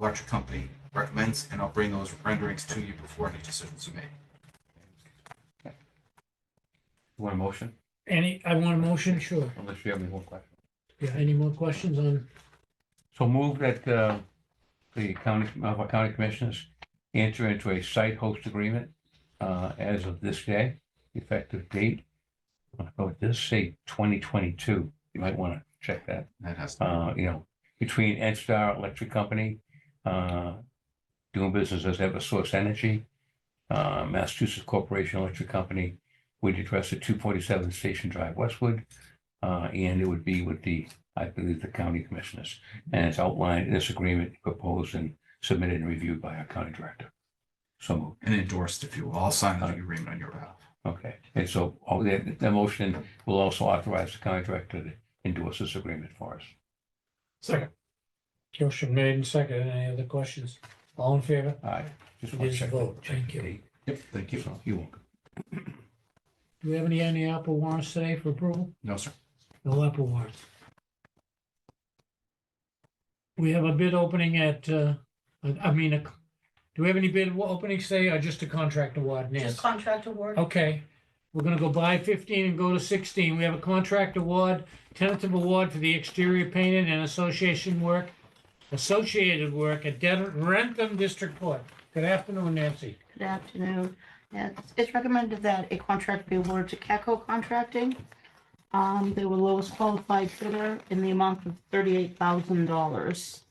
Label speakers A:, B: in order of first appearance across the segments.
A: Electric Company recommends, and I'll bring those renderings to you before any decisions are made.
B: Want a motion?
C: Any, I want a motion, sure.
B: Unless you have any more questions.
C: Yeah, any more questions on,
B: So move that uh, the county, Norfolk County Commissioners enter into a site host agreement uh, as of this day, effective date. Oh, it does say twenty twenty-two. You might want to check that.
A: That has,
B: uh, you know, between Edstar Electric Company, uh, doing business as Eversource Energy, uh, Massachusetts Corporation Electric Company, we'd address at two forty-seven Station Drive, Westwood. Uh, and it would be with the, I believe, the county commissioners. And it's outlined in this agreement proposed and submitted and reviewed by our county director. So moved.
A: and endorsed if you will. I'll sign the agreement on your behalf.
B: Okay, and so, oh, the, the motion will also authorize the county director to endorse this agreement for us.
C: second? Motion made and second. Any other questions? All in favor?
B: All right. Just
C: It
B: want
C: is
B: to
C: a
B: check.
C: vote.
B: check
C: Thank
B: the
C: you.
B: date.
A: Yep, thank you.
B: So You won't.
C: Do we have any, any Apple warrants today for approval?
A: No, sir.
C: No Apple warrants. We have a bid opening at, uh, I I mean, a- do we have any bid openings today or just a contract award, Nancy?
D: Just contract award.
C: Okay, we're gonna go by fifteen and go to sixteen. We have a contract award, tentative award for the exterior painting and association work, associated work at Den- Rentham District Court. Good afternoon, Nancy.
D: Good afternoon. Yes, It's recommended that a contract be awarded to CACO Contracting. Um, They were lowest qualified bidder in the amount of $38,000.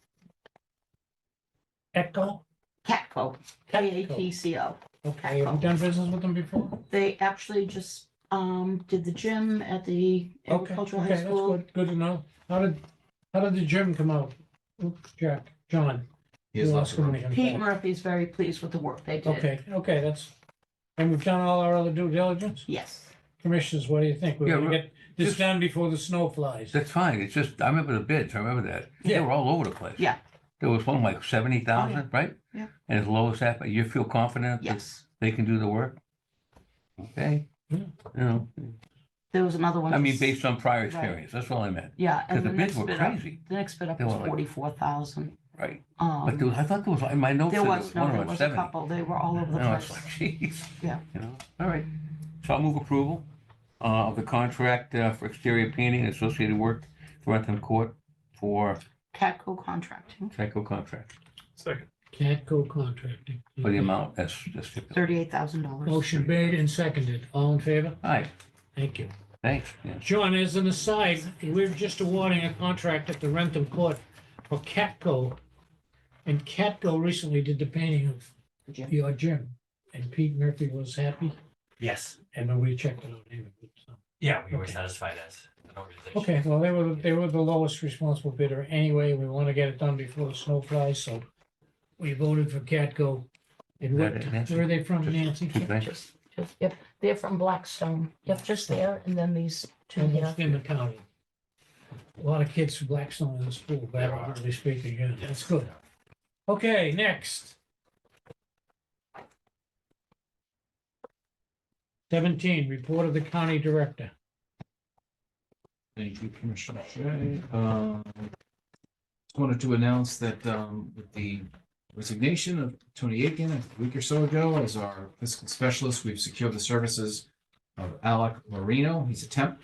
C: Echo?
D: CATCO, K-A-T-C-O.
C: Okay, have you done business with them before?
D: They actually just um, did the gym at the
C: Okay,
D: agricultural
C: okay,
D: high
C: that's
D: school.
C: good, good to know. How did, how did the gym come out? Oops, Jack, John.
A: He has
C: you
A: lots
C: lost
A: of room.
C: somebody.
D: Pete Murphy's very pleased with the work they did.
C: Okay, okay, that's, and we've done all our other due diligence?
D: Yes.
C: Commissioners, what do you think? We're
B: Yeah,
C: gonna
B: we're-
C: get this
B: just-
C: done before the snow flies?
B: That's fine. It's just, I remember the bids. I remember that. They
C: Yeah.
B: were all over the place.
D: Yeah. Oh,
B: There was one like seventy thousand, right?
D: Yeah.
B: And as low as that, but you feel confident? that
D: Yes.
B: They can do the work? Okay.
C: Yeah.
B: You know,
D: There was another one.
B: I mean,
D: just-
B: based on prior
D: Right.
B: experience. That's all I meant.
D: Yeah.
B: Because
D: and
B: the bids
D: next
B: were
D: bid up-
B: crazy,
D: The next bid up
B: They
D: was
B: were like-
D: 44,000.
B: right? But there
D: Um,
B: was, I thought there was, in my notes,
D: There
B: there
D: was,
B: was
D: no,
B: one
D: there
B: around
D: was a
B: seventy.
D: couple. They were all over the
B: And I was
D: place.
B: like, jeez.
D: Yeah.
B: You know, all right. So I'll move approval uh, of the contract uh, for exterior painting and associated work for Rentham Court for
D: Catco Contracting,
B: Tyco contract.
C: Catco Contracting.
B: for the amount that's that's stipulated.
D: thirty-eight thousand dollars.
C: Motion made and seconded. All in favor?
B: All right,
C: Thank you.
B: thanks. Yeah.
C: John, as an aside, we're just awarding a contract at the Rentham Court for Catco. And Catco recently did the painting of your gym. And Pete Murphy was happy
E: Yes.
C: and then we checked it out. anyway, so.
E: Yeah, we were
C: Okay.
E: satisfied as an organization.
C: Okay, well, they were, they were the lowest responsible bidder anyway. We want to get it done before the snow flies, so we voted for Catco. And what,
B: That- that's-
C: where are they from, Nancy?
B: Thanks.
D: Just, just, yep, they're from Blackstone. Yep, just there, and then these two here.
C: Almost in the county. A lot of kids from Blackstone in the school, but
E: There are.
C: hardly speaking, yeah,
E: Yes.
C: that's good. Okay, next. Seventeen, report of the county director.
A: Thank you, Commissioner Shea. Um, Just wanted to announce that um, with the resignation of Tony Aiken a week or so ago as our fiscal specialist, we've secured the services of Alec Marino. He's a temp,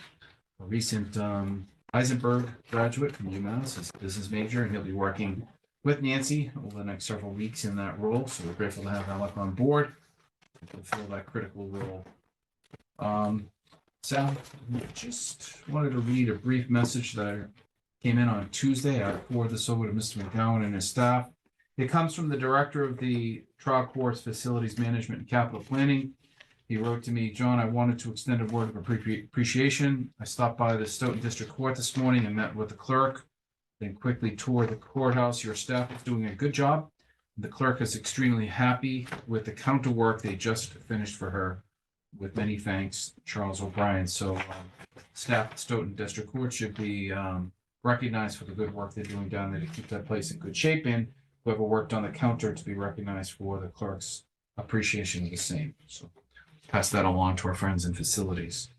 A: a recent um, Eisenberg graduate from UMass, he's a business major, and he'll be working with Nancy over the next several weeks in that role. So we're grateful to have Alec on board to fulfill that critical role. Um, Sal, just wanted to read a brief message that I came in on Tuesday. I forwarded this over to Mr. McGowan and his staff. It comes from the Director of the Trial Courts Facilities Management and Capital Planning. He wrote to me, John, I wanted to extend a word of appre- appreciation. I stopped by the Stoughton District Court this morning and met with the clerk, then quickly toured the courthouse. Your staff is doing a good job. The clerk is extremely happy with the counter work they just finished for her with many thanks, Charles O'Brien. So um, staff at Stoughton District Court should be um, recognized for the good work they're doing down there to keep that place in good shape. And whoever worked on the counter to be recognized for the clerk's appreciation of the same. So pass that along to our friends in facilities.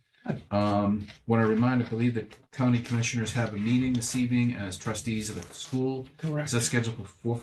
A: Um, Want to remind, I believe the county commissioners have a meeting this evening as trustees of the school. Is
C: Correct.
A: that scheduled for four